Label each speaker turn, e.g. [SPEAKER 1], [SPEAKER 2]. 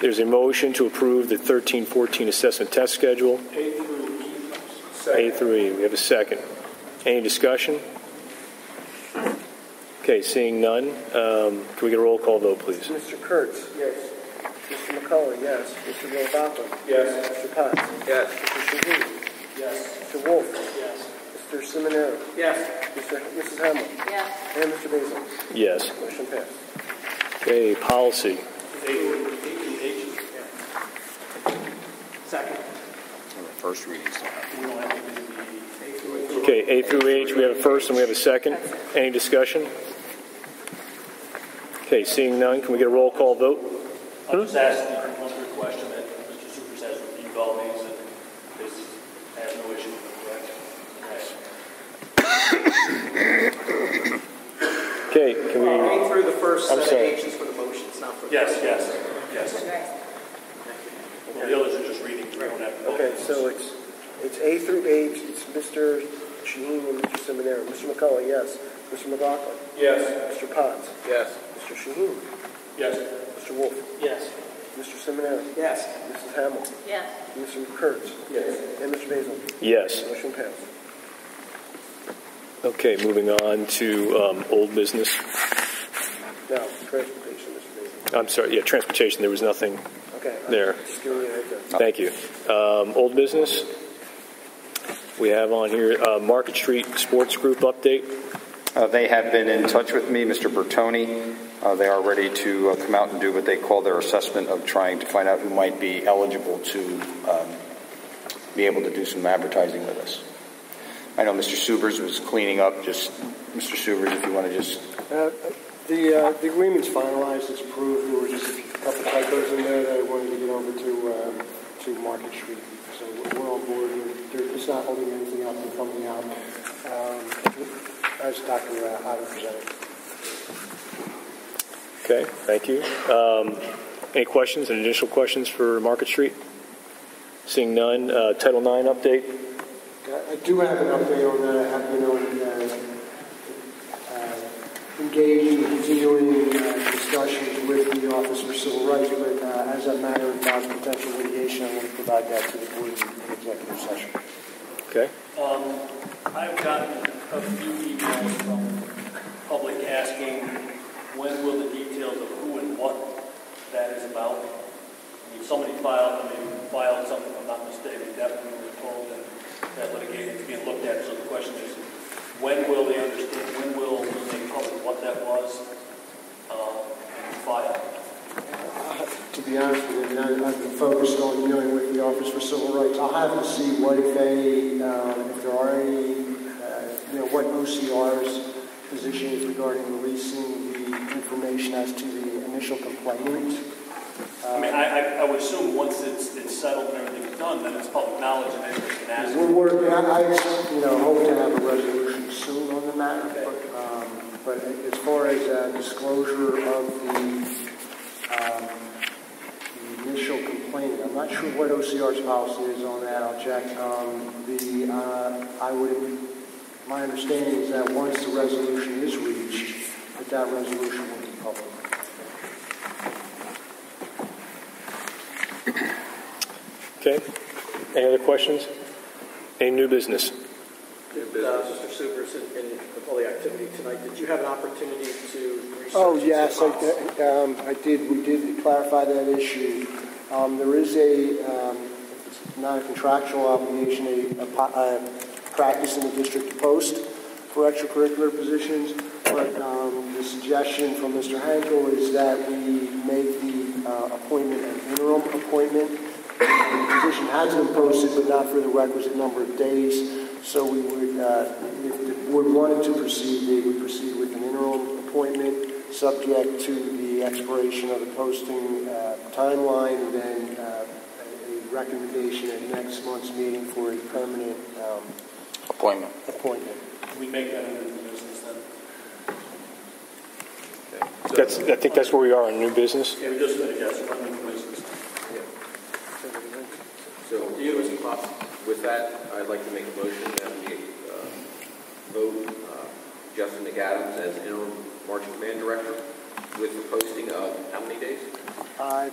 [SPEAKER 1] There's a motion to approve the 13-14 assessment test schedule,
[SPEAKER 2] A through E.
[SPEAKER 1] A through E. We have a second. Any discussion? Okay, seeing none, um, can we get a roll call vote, please?
[SPEAKER 3] Mr. Kurtz.
[SPEAKER 2] Yes.
[SPEAKER 3] Mr. McCullough, yes. Mr. Novotny.
[SPEAKER 2] Yes.
[SPEAKER 3] Mr. Potts.
[SPEAKER 2] Yes.
[SPEAKER 3] Mr. Green.
[SPEAKER 2] Yes.
[SPEAKER 3] Mr. Wolf.
[SPEAKER 2] Yes.
[SPEAKER 3] Mr. Seminara.
[SPEAKER 2] Yes.
[SPEAKER 3] Mr. Mrs. Hamel.
[SPEAKER 4] yes,
[SPEAKER 3] And Mr. Basil.
[SPEAKER 1] Yes.
[SPEAKER 3] Motion passed.
[SPEAKER 1] Okay, policy.
[SPEAKER 2] A through E through H. Second.
[SPEAKER 5] First readings don't have
[SPEAKER 2] We don't have to do the A through H.
[SPEAKER 1] Okay, A through H, we have a first and we have a second. Any discussion? Okay, seeing none, can we get a roll call vote?
[SPEAKER 6] I'll just ask the complimentary question that Mr. Super says would be all these, and this has no issue with the correction.
[SPEAKER 1] Okay, can we,
[SPEAKER 2] A through the first
[SPEAKER 1] I'm
[SPEAKER 2] set of
[SPEAKER 1] sorry.
[SPEAKER 2] H's for the motions, not for the.
[SPEAKER 6] Yes, yes, yes.
[SPEAKER 4] right.
[SPEAKER 6] Well, the others are just reading, we don't have. to vote.
[SPEAKER 3] Okay, so it's, it's A through H, it's Mr. Shaheen and Mr. Seminara. Mr. McCullough, yes. Mr. McLaughlin.
[SPEAKER 2] Yes.
[SPEAKER 3] Mr. Potts.
[SPEAKER 2] Yes.
[SPEAKER 3] Mr. Shaheen.
[SPEAKER 6] Yes,
[SPEAKER 3] Mr. Wolf.
[SPEAKER 2] Yes.
[SPEAKER 3] Mr. Seminara.
[SPEAKER 2] Yes.
[SPEAKER 3] Mrs. Hamel.
[SPEAKER 4] yes.
[SPEAKER 3] Mr. Kurtz.
[SPEAKER 2] Yes.
[SPEAKER 3] And Mr. Basil.
[SPEAKER 1] yes.
[SPEAKER 3] Motion passed.
[SPEAKER 1] Okay, moving on to um, old business.
[SPEAKER 3] Now, transportation, Mr. Basil.
[SPEAKER 1] I'm sorry, yeah, transportation, there was nothing
[SPEAKER 3] Okay. I'm
[SPEAKER 1] There.
[SPEAKER 3] Just giving you a heads up.
[SPEAKER 1] Thank you. Um, Old business, we have on here uh, Market Street Sports Group update.
[SPEAKER 5] Uh, They have been in touch with me, Mr. Bertoni. Uh, They are ready to uh, come out and do what they call their assessment of trying to find out who might be eligible to um, be able to do some advertising with us. I know Mr. Subers was cleaning up, just, Mr. Subers, if you want to just,
[SPEAKER 7] Uh, The, uh, the agreement's finalized, it's approved, there were just a couple typos in there that I wanted to get over to, uh, to Market Street. So we're on board, and there- it's not holding anything up from coming out, um, as Dr. Hyder presented.
[SPEAKER 1] Okay, thank you. Um, Any questions, any additional questions for Market Street? Seeing none, uh, Title IX update.
[SPEAKER 7] I I do have an update on that. I have been on, uh, uh, engaged in continuing uh, discussions with the Office for Civil Rights, but uh, as a matter of non-potential litigation, I want to provide that to the board in executive session.
[SPEAKER 1] Okay,
[SPEAKER 6] um, I've gotten a few emails from public asking, when will the details of who and what that is about? I mean, somebody filed, I mean, filed something, if I'm not mistaken, definitely we were told that that litigation is being looked at, so the question is, when will they understand, when will, will they public what that was, uh, and file?
[SPEAKER 7] To be honest with you, I- I've been focused on dealing with the Office for Civil Rights. I'll have to see what if any, um, if there are any, uh, you know, what OCR's position is regarding releasing the information as to the initial complainant.
[SPEAKER 6] I mean, I, I, I would assume once it's, it's settled and everything's done, then it's public knowledge and everybody can ask.
[SPEAKER 7] We're working, I, I, you know, hope to have a resolution soon on the matter, but, um, but as far as uh, disclosure of the, um, the initial complaint, I'm not sure what OCR's policy is on that, I'll check. Um, the, uh, I would, my understanding is that once the resolution is reached, that that resolution will be public.
[SPEAKER 1] okay. Any other questions? Any new business?
[SPEAKER 2] Did, uh, Mr. Supers, in, in with all the activity tonight, did you have an opportunity to research?
[SPEAKER 7] Oh, yes,
[SPEAKER 2] the policy?
[SPEAKER 7] I, um, I did, we did clarify that issue. Um, there is a, um, it's not a contractual obligation, a, a, po- a practice in the district to post for extracurricular positions, but, um, the suggestion from Mr. Hankel is that we make the, uh, appointment an interim appointment. The position has been posted, but not for the requisite number of days, so we would, uh, if the board wanted to proceed, they would proceed with an interim appointment subject to the expiration of the posting uh, timeline, and then uh, a recommendation at next month's meeting for a permanent um,
[SPEAKER 5] appointment.
[SPEAKER 7] appointment.
[SPEAKER 6] We make that into the business then.
[SPEAKER 1] That's, I think that's where we are on new business.
[SPEAKER 6] Yeah, we just, yes, we're in the business.
[SPEAKER 8] So, Mr. Potts, with that, I'd like to make a motion that we uh, vote uh, Justin McAdams as interim marching command director with the posting of how many days?
[SPEAKER 7] I